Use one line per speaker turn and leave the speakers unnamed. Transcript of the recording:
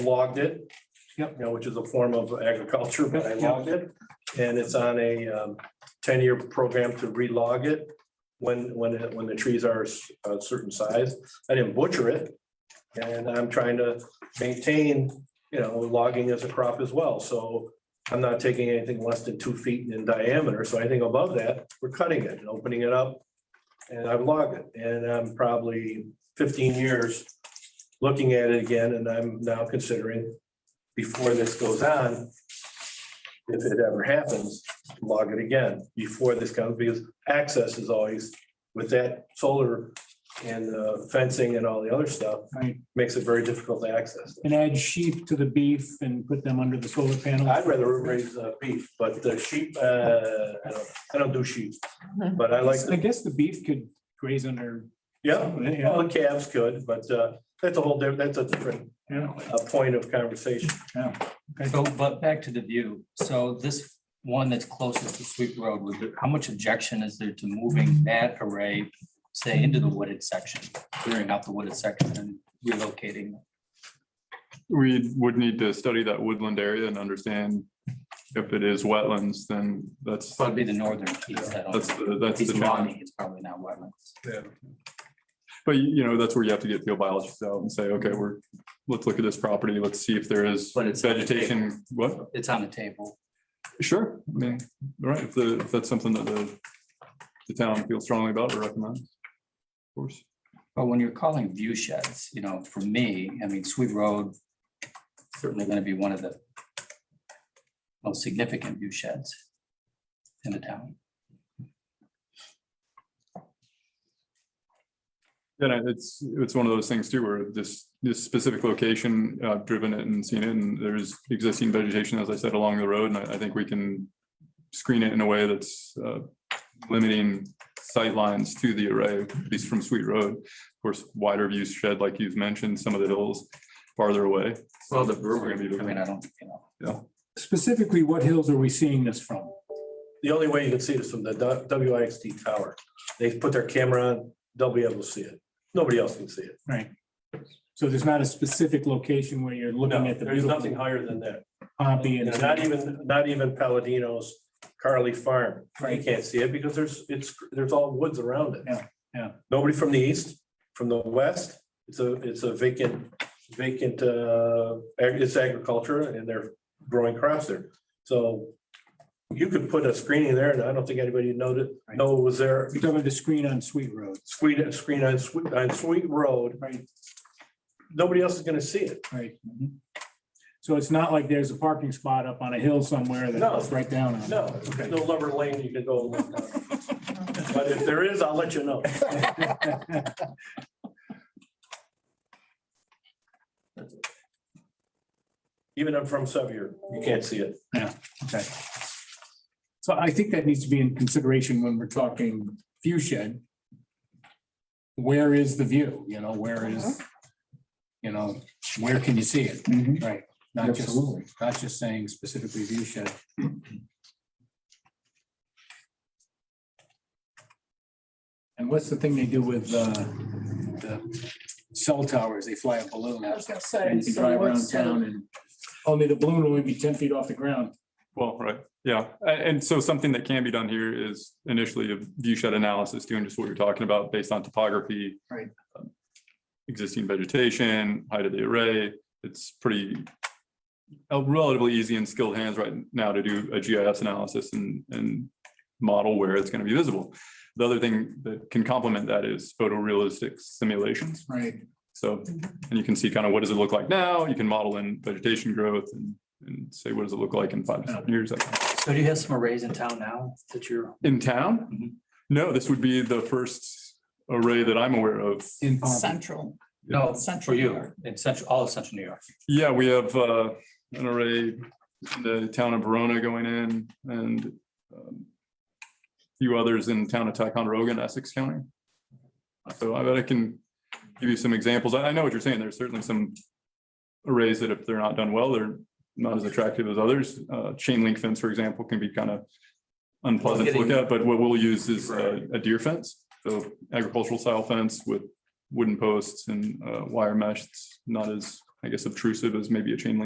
logged it.
Yep.
You know, which is a form of agriculture, but I
Yep.
logged it, and it's on a um, ten-year program to relog it when, when, it- when the trees are s- a certain size. I didn't butcher it, and I'm trying to maintain, you know, logging as a crop as well, so I'm not taking anything less than two feet in diameter, so anything above that, we're cutting it and opening it up. And I've logged it, and I'm probably fifteen years looking at it again, and I'm now considering, before this goes on, if it ever happens, log it again before this comes, because access is always with that solar and uh, fencing and all the other stuff,
Right,
makes it very difficult to access.
and add sheep to the beef and put them under the solar panels.
I'd rather raise uh, beef, but the sheep, uh, I don't, I don't do sheep, but I like,
I
the-
guess the beef could graze under,
yeah,
yeah,
well, the calves could, but uh, that's a whole, different. that's a different
yeah,
uh, point of conversation.
So, but back to the view, so this one that's closest to Sweet Road, was there, how much objection is there to moving that array, say, into the wooded section, clearing out the wooded section and relocating?
We would need to study that woodland area and understand if it is wetlands, then that's, that's,
Probably the northern piece that,
the- that's
piece
the challenge.
logging, it's probably not wetlands.
But you you know, that's where you have to get field biologists out and say, okay, we're, let's look at this property, let's see if there is
But it's-
vegetation, what?
It's on the table.
Sure, I mean, right, if the, if that's something that the, the town feels strongly about or recommends. Of course,
But when you're calling view sheds, you know, for me, I mean, Sweet Road certainly gonna be one of the most significant view sheds in the town.
then I- it's, it's one of those things too, where this, this specific location, I've driven it and seen it, and there's existing vegetation, as I said, along the road, and I, I think we can screen it in a way that's uh, limiting sightlines to the array, at least from Sweet Road. Of course, wider view shed, like you've mentioned, some of the hills farther away.
Well, the
brewery-
I mean, I don't, you know.
specifically, what hills are we seeing this from?
The only way you can see this from the WIXT tower. They put their camera on, they'll be able to see it. Nobody else can see it.
Right. So there's not a specific location where you're looking
No,
at the
there's nothing
beautiful
higher than that.
poppy
You
and.
know, Not even, not even Palladino's Carly Farm. You
Right.
can't see it because there's, it's, there's all woods around it.
Yeah, yeah.
Nobody from the east, from the west. It's a, it's a vacant, vacant, uh, ag- it's agriculture and they're growing crops there. So you could put a screening there and I don't think anybody noted, know it was there
You're talking about the screen on Sweet Road.
screen, screen on Sweet, on Sweet Road,
Right.
nobody else is gonna see it.
Right. Mm-hmm. So it's not like there's a parking spot up on a hill somewhere
No.
that's right down on. it.
No,
Okay.
no lover lane you can go. and look down. But if there is, I'll let you know. Even if from Sevier, you can't see it.
So I think that needs to be in consideration when we're talking view shed. Where is the view, you know, where is, you know, where can you see it, right? Not just, not just saying specifically view shed. And what's the thing they do with uh, the cell towers, they fly a balloon
I
out,
was gonna
and
say.
you can
so
drive around
what's uh, the-
town and, only the balloon will only be ten feet off the ground.
Well, right, yeah, A- and, so something that can be done here is initially a view shed analysis, doing just what you're talking about based on topography.
Right.
um, Existing vegetation, height of the array, it's pretty uh, relatively easy and skilled hands right now to do a GIS analysis and, and model where it's gonna be visible. The other thing that can complement that is photorealistic simulations.
Right.
So, and you can see kind of what does it look like now? You can model in vegetation growth and, and say, what does it look like in five to seven years? that kind of thing.
So do you have some arrays in town now that you're?
In town?
Mhm.
No, this would be the first array that I'm aware of.
In Palm
Central.
No, for
Central New
you,
York.
in central, all of central New York.
Yeah, we have uh, an array, in the town of Verona going in and um, few others in town of Ticonderoga in Essex County. So I bet I can give you some examples. I I know what you're saying. There's certainly some arrays that if they're not done well, they're not as attractive as others. Uh, Chain link fence, for example, can be kind of unpleasant to look at, but what we'll use is uh, a deer fence. So agricultural style fence with wooden posts and uh, wire mesh. It's not as I guess obtrusive as maybe a chain link